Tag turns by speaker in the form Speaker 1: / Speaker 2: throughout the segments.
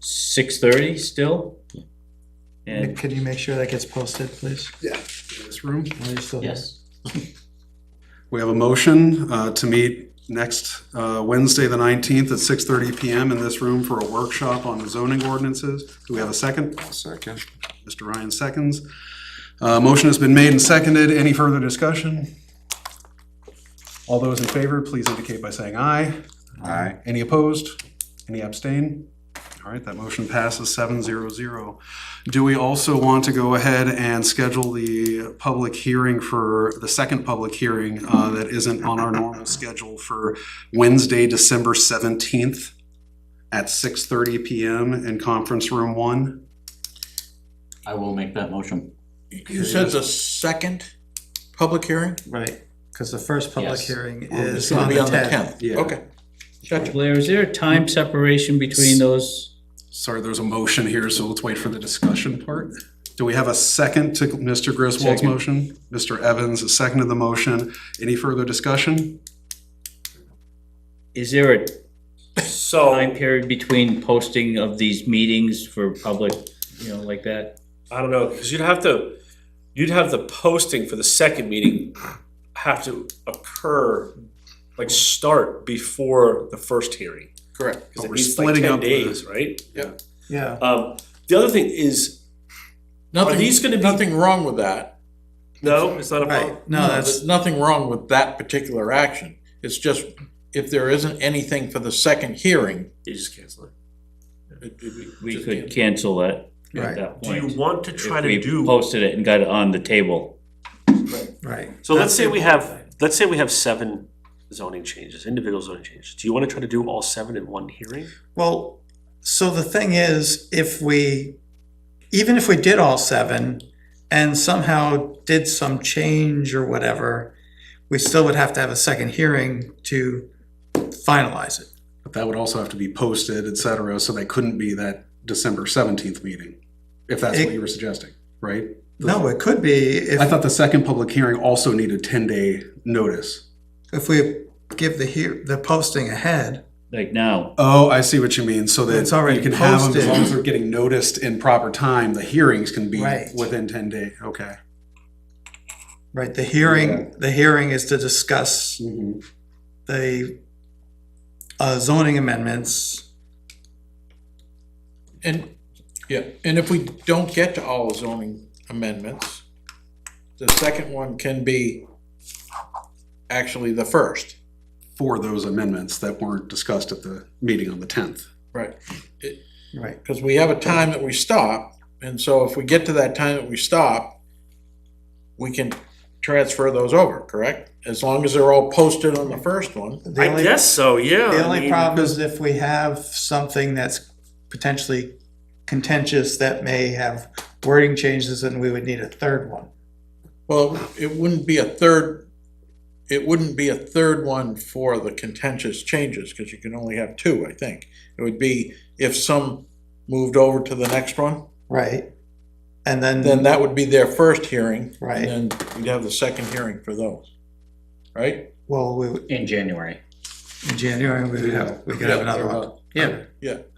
Speaker 1: six thirty still?
Speaker 2: Nick,
Speaker 1: And,
Speaker 2: Could you make sure that gets posted, please?
Speaker 3: in this room.
Speaker 2: While you're still here?
Speaker 1: yes,
Speaker 3: We have a motion uh, to meet next uh, Wednesday, the 19th, at 6:30 PM in this room for a workshop on zoning ordinances. Do we have a second? Second. Mr. Ryan seconds. Uh, Motion has been made and seconded. Any further discussion? All those in favor, please indicate by saying aye. Aye. Any opposed? Any abstain? All right, that motion passes 7-0-0. Do we also want to go ahead and schedule the public hearing for, the second public hearing uh, that isn't on our normal schedule for Wednesday, December 17th at 6:30 PM in Conference Room 1?
Speaker 1: I will make that motion.
Speaker 4: You said the second public hearing?
Speaker 2: Right, because the first public
Speaker 1: Yes.
Speaker 2: hearing
Speaker 4: It's
Speaker 2: is
Speaker 4: gonna
Speaker 2: on
Speaker 4: be
Speaker 2: the tenth.
Speaker 3: Yeah.
Speaker 4: Okay. Gotcha.
Speaker 1: Blair, is there a time separation between those?
Speaker 3: Sorry, there's a motion here, so let's wait for the discussion part. Do we have a second to Mr. Griswold's
Speaker 1: Second.
Speaker 3: motion? Mr. Evans, a second to the motion. Any further discussion?
Speaker 1: Is there a time
Speaker 5: So,
Speaker 1: period between posting of these meetings for public, you know, like that?
Speaker 5: I don't know, because you'd have to, you'd have the posting for the second meeting have to occur, like, start before the first hearing.
Speaker 4: Correct.
Speaker 5: Because
Speaker 3: But
Speaker 5: it
Speaker 3: we're
Speaker 5: needs like
Speaker 3: splitting
Speaker 5: ten
Speaker 3: up the-
Speaker 5: days, right?
Speaker 2: Yeah,
Speaker 5: Um, the other thing is, are
Speaker 4: Nothing,
Speaker 5: these gonna be,
Speaker 4: nothing wrong with that.
Speaker 5: no, it's not a problem.
Speaker 2: right, no, that's,
Speaker 4: There's nothing wrong with that particular action. It's just, if there isn't anything for the second hearing,
Speaker 5: You just cancel it.
Speaker 4: it- it-
Speaker 1: We
Speaker 4: just
Speaker 1: could
Speaker 4: can't.
Speaker 1: cancel that at
Speaker 2: Right.
Speaker 1: that
Speaker 5: Do
Speaker 1: point.
Speaker 5: you want to try
Speaker 1: If
Speaker 5: to
Speaker 1: we
Speaker 5: do,
Speaker 1: posted it and got it on the table.
Speaker 2: right.
Speaker 5: so let's say we have, let's say we have seven zoning changes, individual zoning changes. Do you want to try to do all seven in one hearing?
Speaker 2: Well, so the thing is, if we, even if we did all seven and somehow did some change or whatever, we still would have to have a second hearing to finalize it.
Speaker 3: But that would also have to be posted, et cetera, so that couldn't be that December seventeenth meeting, if that's what you were suggesting, right?
Speaker 2: No, it could be
Speaker 3: I
Speaker 2: if,
Speaker 3: thought the second public hearing also needed ten-day notice.
Speaker 2: if we give the hear, the posting ahead.
Speaker 1: Like now,
Speaker 3: Oh, I see what you mean, so that
Speaker 2: It's already
Speaker 3: you can have them, as long as
Speaker 2: posted.
Speaker 3: they're getting noticed in proper time, the hearings can be
Speaker 2: Right.
Speaker 3: within ten day, okay.
Speaker 2: Right, the
Speaker 3: Yeah.
Speaker 2: hearing, the hearing is to discuss the uh, zoning amendments.
Speaker 4: And, yeah, and if we don't get to all zoning amendments, the second one can be actually the first.
Speaker 3: For those amendments that weren't discussed at the meeting on the tenth.
Speaker 4: Right.
Speaker 2: Right.
Speaker 4: Because we have a time that we stop, and so if we get to that time that we stop, we can transfer those over, correct? As long as they're all posted on the first one.
Speaker 2: The
Speaker 5: I
Speaker 2: only-
Speaker 5: guess so, yeah.
Speaker 2: The
Speaker 5: I
Speaker 2: only
Speaker 5: mean-
Speaker 2: problem is if we have something that's potentially contentious that may have wording changes, then we would need a third one.
Speaker 4: Well, it wouldn't be a third, it wouldn't be a third one for the contentious changes, because you can only have two, I think. It would be if some moved over to the next one,
Speaker 2: Right. And then,
Speaker 4: then that would be their first hearing,
Speaker 2: right,
Speaker 4: and then you'd have the second hearing for those, right?
Speaker 2: well, we, would-
Speaker 6: In January.
Speaker 2: in January, we would have, we could have another one.
Speaker 6: Yeah.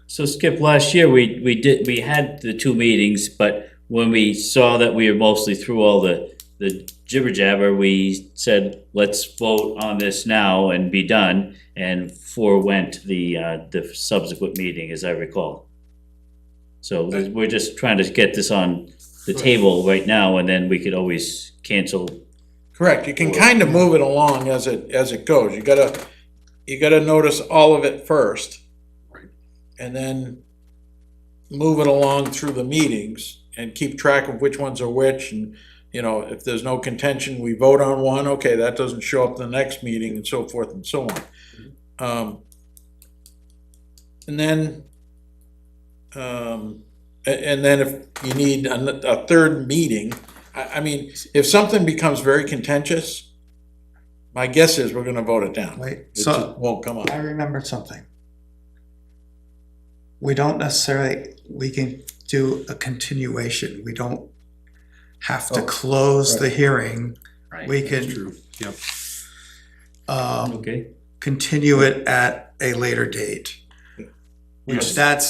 Speaker 1: so Skip, last year, we, we did, we had the two meetings, but when we saw that we were mostly through all the, the jibber jabber, we said, let's vote on this now and be done, and forewent the, uh, the subsequent meeting, as I recall. So we're just trying to get this on the table right now, and then we could always cancel
Speaker 4: Correct, you can kind of move it along as it, as it goes, you gotta, you gotta notice all of it first.
Speaker 3: Right.
Speaker 4: And then move it along through the meetings and keep track of which ones are which and, you know, if there's no contention, we vote on one, okay, that doesn't show up the next meeting and so forth and so on. Um, and then, um, a- and then if you need a, a third meeting, I, I mean, if something becomes very contentious, my guess is we're gonna vote it down.
Speaker 2: Wait,
Speaker 4: It
Speaker 2: so
Speaker 4: just won't come up.
Speaker 2: I remembered something. We don't necessarily, we can do a continuation. We don't have to
Speaker 4: Oh,
Speaker 2: close the hearing.
Speaker 6: Right.
Speaker 2: We
Speaker 3: That's
Speaker 2: can,
Speaker 3: true, yep.
Speaker 2: um,
Speaker 1: Okay,
Speaker 2: continue it at a later date. Which that's